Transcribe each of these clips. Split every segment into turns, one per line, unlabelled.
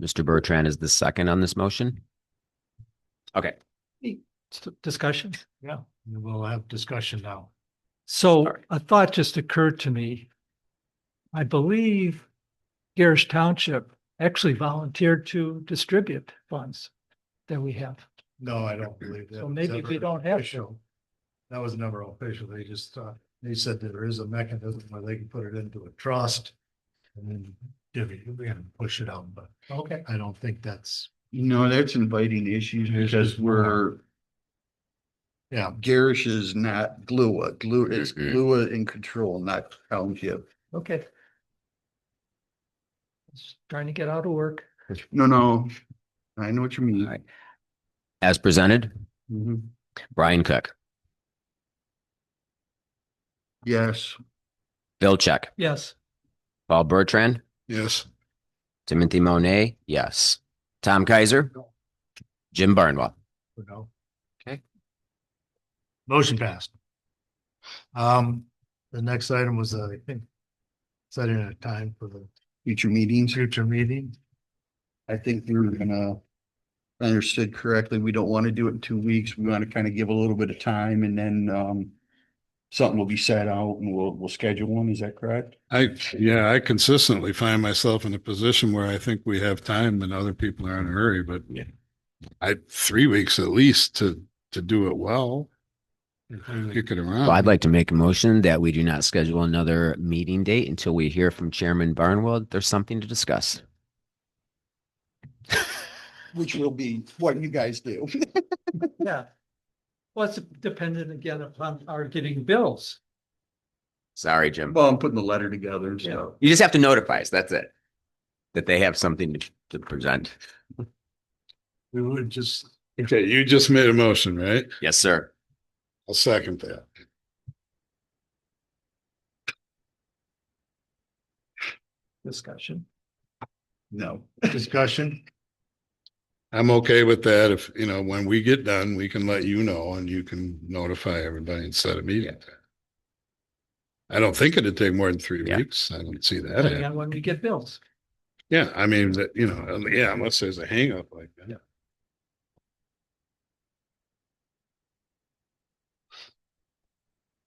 Mr. Bertrand is the second on this motion. Okay,
s- discussion? Yeah, we'll have discussion now.
All
So
right.
a thought just occurred to me. I believe Garrish Township actually volunteered to distribute funds that we have.
No, I don't believe that.
So
was
maybe
ever
we don't have to.
official. That was never official. They just, uh, they said that there is a mechanism where they can put it into a trust. And then divvy, we can push it out, but
Okay.
I don't think that's,
You know, that's inviting issues because we're,
yeah,
Garish is not Glua. Glua is
Mhm.
Glua in control, not township.
Okay. Just Trying to get out of work.
No, no. I know what you mean.
Alright. as presented,
Mhm.
Brian Cook,
Yes.
Bill Check,
Yes,
Paul Bertrand,
Yes.
Timothy Monet, yes. Tom Kaiser, Jim Barnwell.
you know.
Okay.
Motion passed. Um, the next item was, uh, I think, setting a time for the
Future meetings.
future meeting.
I think we were gonna, if I understood correctly, we don't want to do it in two weeks. We want to kind of give a little bit of time and then, um, something will be set out and we'll, we'll schedule one. Is that correct?
I, yeah, I consistently find myself in a position where I think we have time and other people are in a hurry, but I, three weeks at least to, to do it well, kick it around.
Well, I'd like to make a motion that we do not schedule another meeting date until we hear from Chairman Barnwell. that There's something to discuss.
Which will be what you guys do.
yeah. Well, it's dependent again upon our getting bills.
Sorry, Jim.
Well, I'm putting the letter together and stuff.
You just have to notify us. That's it. That they have something to, to present.
We would just,
Okay, you just made a motion, right?
Yes, sir.
I'll second that.
Discussion.
No.
discussion,
I'm okay with that. If, you know, when we get done, we can let you know and you can notify everybody and set a meeting. I don't think it'd take more than three
Yeah.
weeks. I don't see that.
depending
happening.
on when we get bills.
Yeah, I mean, that, you know, yeah, unless there's a hangup like that.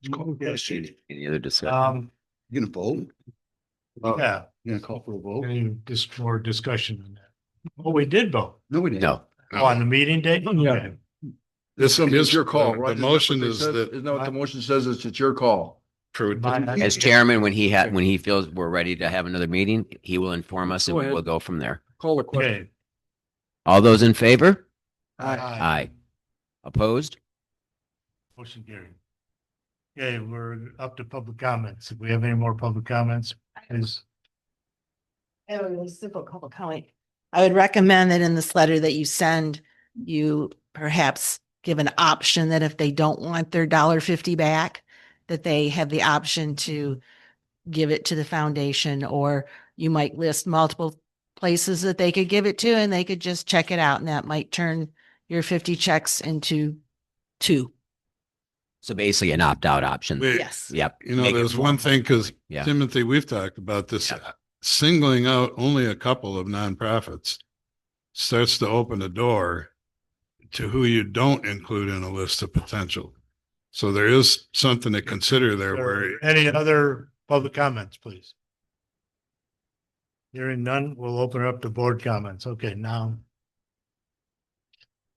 You
Any other discussion?
um,
gonna vote? You
yeah.
gonna call for a vote?
Any just for discussion on that? Well, we did vote
No, we didn't.
No.
Mm-hmm.
Oh, on the meeting date. Yeah.
This is your call,
right?
The motion
Isn't
is
that what they said?
that
Isn't that what the motion says? It's, it's your call.
for,
My-
As chairman, when he had, when he feels we're ready to have another meeting, he will inform us and
Go ahead.
we'll go from there.
Call the question.
Okay.
All those in favor?
Aye.
Aye. Opposed?
Motion carried. Okay, we're up to public comments. If we have any more public comments, please.
I have a really Oh, simple couple comment. I would recommend that in this letter that you send, you perhaps give an option that if they don't want their dollar fifty back, that they have the option to give it to the foundation, or you might list multiple places that they could give it to and they could just check it out and that might turn your fifty checks into two.
So basically an opt-out option.
we-
Yes.
Yep.
you know,
Make it
there's one thing, because
Yeah.
Timothy, we've talked about this, uh,
Yeah.
singling out only a couple of nonprofits starts to open the door to who you don't include in a list of potential. So there is something to consider there where,
Any other public comments, please? Hearing none, we'll open up to board comments. Okay, now,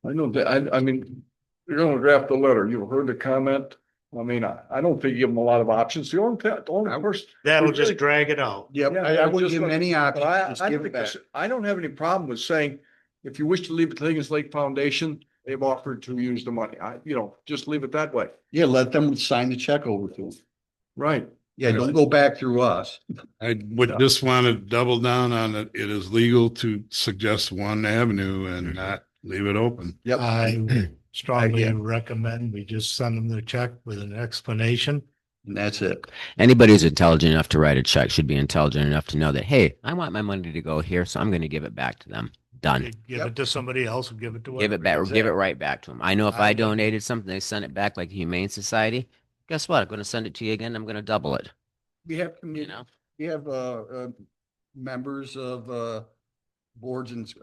I know that, I, I mean, you're gonna draft the letter, you heard the comment. I mean, I, I don't think you give them a lot of options. The only, the only person,
that'll just drag it out.
Yep,
Yeah,
I,
I
I
was
wouldn't
just
give
gonna-
many options.
but I,
Just
I
give
don't
it
think,
back.
this- I don't have any problem with saying, if you wish to leave it to Higgins Lake Foundation, they've offered to use the money. I, you know, just leave it that way.
Yeah, let them sign the check over to them.
Right.
Yeah, don't go back through us.
I would just want to double down on it. It is legal to suggest one avenue and not leave it open.
Yep.
I
I-
strongly
yeah.
recommend we just send them the check with an explanation.
And that's it.
Anybody who's intelligent enough to write a check should be intelligent enough to know that, hey, I want my money to go here, so I'm going to give it back to them. Done.
Give it to somebody else and give it to.
Give
whatever.
it back, or give it right back to them. I know if I
I-
donated something, they sent it back like the Humane Society. Guess what? I'm going to send it to you again. I'm going to double it,
We have,
you know?
we have, uh, uh, members of, uh, boards and